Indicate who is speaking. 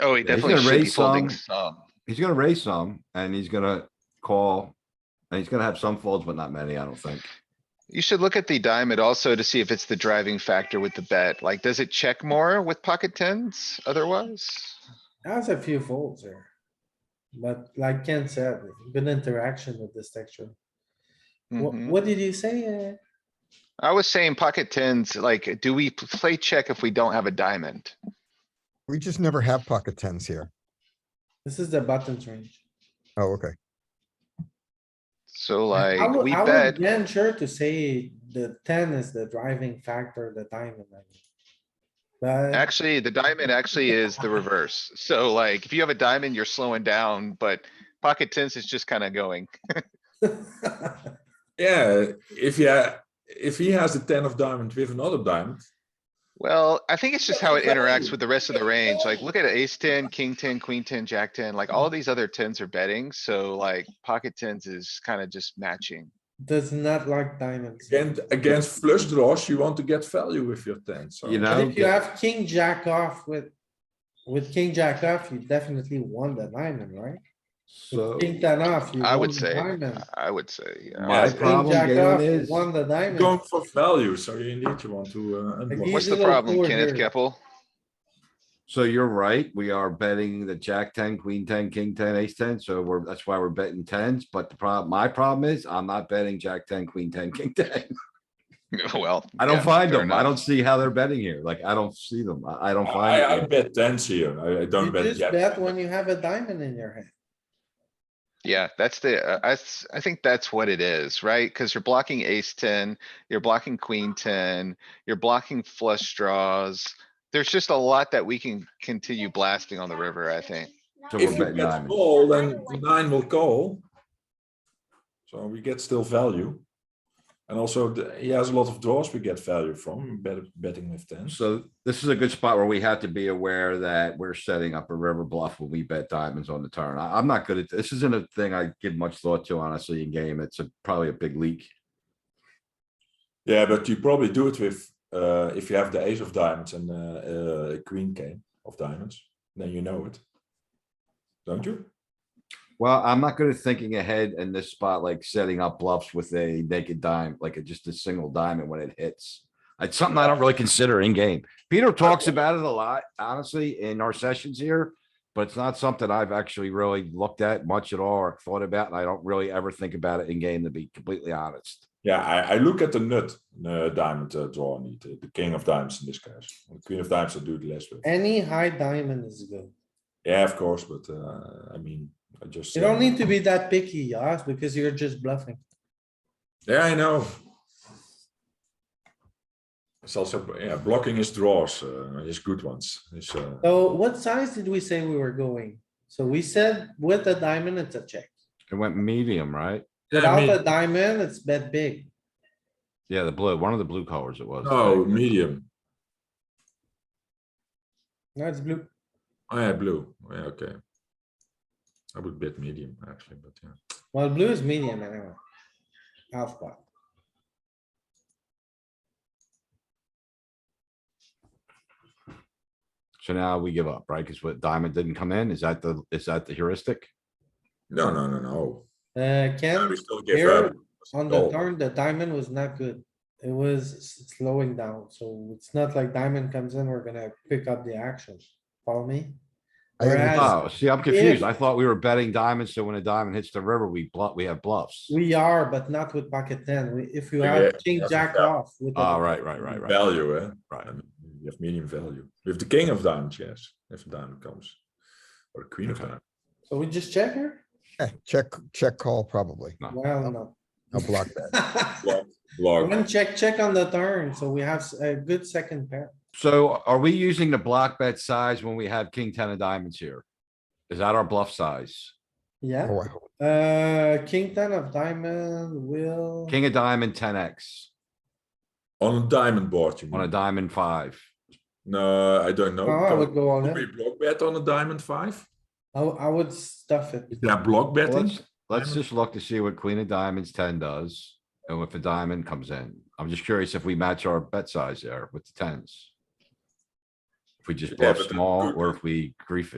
Speaker 1: Oh, he
Speaker 2: Yeah, he's
Speaker 1: definitely
Speaker 2: gonna
Speaker 1: should be
Speaker 2: raise
Speaker 1: folding
Speaker 2: some.
Speaker 1: some.
Speaker 2: He's gonna raise some and he's gonna call. And he's gonna have some folds, but not many, I don't think.
Speaker 1: You should look at the diamond also to see if it's the driving factor with the bet. Like, does it check more with pocket tens otherwise?
Speaker 3: Has a few folds here. But like Ken said, good interaction with this texture. What,
Speaker 1: Mhm.
Speaker 3: what did you say? uh,
Speaker 1: I was saying pocket tens, like, do we p- play check if we don't have a diamond?
Speaker 4: We just never have pocket tens here.
Speaker 3: This is the buttons range.
Speaker 4: Oh, okay.
Speaker 1: So
Speaker 3: I
Speaker 1: like,
Speaker 3: would-
Speaker 1: we
Speaker 3: I would
Speaker 1: bet,
Speaker 3: Venture to say the ten is the driving factor, the diamond. I mean. But
Speaker 1: actually, the diamond actually is the reverse. So like, if you have a diamond, you're slowing down, but pocket tens is just kinda going.
Speaker 5: Yeah, if he ha- if he has a ten of diamond with another diamond,
Speaker 1: Well, I think it's just how it interacts with the rest of the range. Like, look at ace ten, king ten, queen ten, jack ten, like all these other tens are betting, so like pocket tens is kinda just matching.
Speaker 3: does not like diamonds.
Speaker 5: against against flush draws, you want to get value with your ten. So
Speaker 2: You
Speaker 3: But
Speaker 2: know,
Speaker 3: if you have king jack off with, with king jack off, you definitely won the diamond, right?
Speaker 2: so
Speaker 3: King ten off, you
Speaker 1: I
Speaker 3: won
Speaker 1: would
Speaker 3: the
Speaker 1: say,
Speaker 3: diamond.
Speaker 1: I would say, yeah.
Speaker 2: my
Speaker 5: it's
Speaker 3: King
Speaker 2: problem,
Speaker 3: jack off,
Speaker 2: Galen,
Speaker 3: you
Speaker 2: is
Speaker 3: Won the diamond.
Speaker 5: going for value, so you need you want to. Uh, unblock.
Speaker 1: What's the
Speaker 3: Easy little
Speaker 1: problem,
Speaker 3: four
Speaker 1: Kenneth
Speaker 3: here.
Speaker 1: Keppel?
Speaker 2: So you're right, we are betting the jack ten, queen ten, king ten, ace ten, so we're, that's why we're betting tens, but the problem, my problem is, I'm not betting jack ten, queen ten, king ten.
Speaker 1: Well.
Speaker 2: I don't
Speaker 1: yeah,
Speaker 2: find
Speaker 1: fair
Speaker 2: them, I
Speaker 1: enough.
Speaker 2: don't see how they're betting here, like, I don't see them, I, I don't
Speaker 5: I, I
Speaker 2: find it.
Speaker 5: bet tens here. I, I don't
Speaker 3: You
Speaker 5: bet
Speaker 3: just
Speaker 5: jack.
Speaker 3: bet when you have a diamond in your hand.
Speaker 1: Yeah, that's the, uh, I, s- I think that's what it is, right? Cuz you're blocking ace ten, you're blocking queen ten, you're blocking flush draws. There's just a lot that we can continue blasting on the river, I think.
Speaker 2: So
Speaker 5: if
Speaker 2: we're
Speaker 5: you
Speaker 2: betting
Speaker 5: get
Speaker 2: diamond,
Speaker 5: call, then the nine will call. So we get still value, and also the, he has a lot of draws. We get value from bet, betting with tens.
Speaker 2: so this is a good spot where we have to be aware that we're setting up a river bluff when we bet diamonds on the turn, I, I'm not good at, this isn't a thing I give much thought to honestly in game, it's a, probably a big leak.
Speaker 5: Yeah, but you probably do it with uh, if you have the ace of diamonds and uh, uh, queen king of diamonds, then you know it, don't you?
Speaker 2: Well, I'm not good at thinking ahead in this spot, like setting up bluffs with a naked dime, like a- just a single diamond when it hits. It's something I don't really consider in game. Peter talks about it a lot, honestly, in our sessions here. But it's not something I've actually really looked at much at all or thought about, and I don't really ever think about it in game, to be completely honest.
Speaker 5: Yeah, I, I look at the nut uh, diamond uh, draw need uh, the king of diamonds in this case. The queen of diamonds I do it less with.
Speaker 3: Any high diamond is good.
Speaker 5: Yeah, of course, but uh, I mean, I just
Speaker 3: You don't need to be that picky, Yoss, because you're just bluffing.
Speaker 5: Yeah, I know. It's also yeah, blocking his draws, uh, his good ones. His, uh,
Speaker 3: So what size did we say we were going? So we said with a diamond, it's a check.
Speaker 2: It went medium, right?
Speaker 5: yeah,
Speaker 3: Without a
Speaker 5: me-
Speaker 3: diamond, it's bet big.
Speaker 2: Yeah, the blue, one of the blue colors it was. I
Speaker 5: no,
Speaker 2: think.
Speaker 5: Oh, medium.
Speaker 3: That's blue.
Speaker 5: Oh yeah, blue. Oh, yeah, okay. I would bet medium actually, but yeah.
Speaker 3: Well, blue is medium anyway. Half pot.
Speaker 2: So now we give up, right? Cuz what diamond didn't come in? Is that the, is that the heuristic?
Speaker 5: No, no, no, no.
Speaker 3: Uh, Ken,
Speaker 5: we still give
Speaker 3: here
Speaker 5: up.
Speaker 3: on the
Speaker 5: Oh.
Speaker 3: turn, the diamond was not good. It was s- slowing down, so it's not like diamond comes in, we're gonna pick up the action. Follow me?
Speaker 4: I think we
Speaker 3: Whereas-
Speaker 2: Oh, see, I'm confused. I thought we were betting diamonds, so when a diamond hits the river, we bluff, we have bluffs.
Speaker 3: We are, but not with pocket ten. We- If you
Speaker 5: Yeah,
Speaker 3: have
Speaker 5: yeah,
Speaker 3: king
Speaker 5: that's a
Speaker 3: jack
Speaker 5: fair.
Speaker 3: off with. a-
Speaker 2: Oh, right, right, right, right,
Speaker 5: Value, eh?
Speaker 2: right.
Speaker 5: I mean, you have medium value. With the king of diamonds, yes, if a diamond comes. Or queen of
Speaker 2: Okay.
Speaker 5: diamonds.
Speaker 3: So we just check here?
Speaker 4: Yeah, Eh, check, check call probably.
Speaker 3: Well, no.
Speaker 4: I'll block that.
Speaker 5: Log.
Speaker 3: One check, check on the turn, so we have s- a good second pair.
Speaker 2: So are we using the block bet size when we have king ten of diamonds here? Is that our bluff size?
Speaker 4: Oh,
Speaker 3: Yeah,
Speaker 4: wow.
Speaker 3: uh, king ten of diamond will.
Speaker 2: King of diamond, ten X
Speaker 5: On a diamond board, you
Speaker 2: on a
Speaker 5: mean?
Speaker 2: diamond five.
Speaker 5: No, I don't know.
Speaker 3: Oh, I
Speaker 5: Can
Speaker 3: would go all
Speaker 5: we
Speaker 3: in.
Speaker 5: block bet on a diamond five?
Speaker 3: I, I would stuff it.
Speaker 5: Is there block
Speaker 2: Well,
Speaker 5: betting?
Speaker 2: Let's, let's just look to see what queen of diamonds ten does and if a diamond comes in. I'm just curious if we match our bet size there with the tens. If we just
Speaker 5: Yeah,
Speaker 2: bluff
Speaker 5: but the-
Speaker 2: small or if we grief it.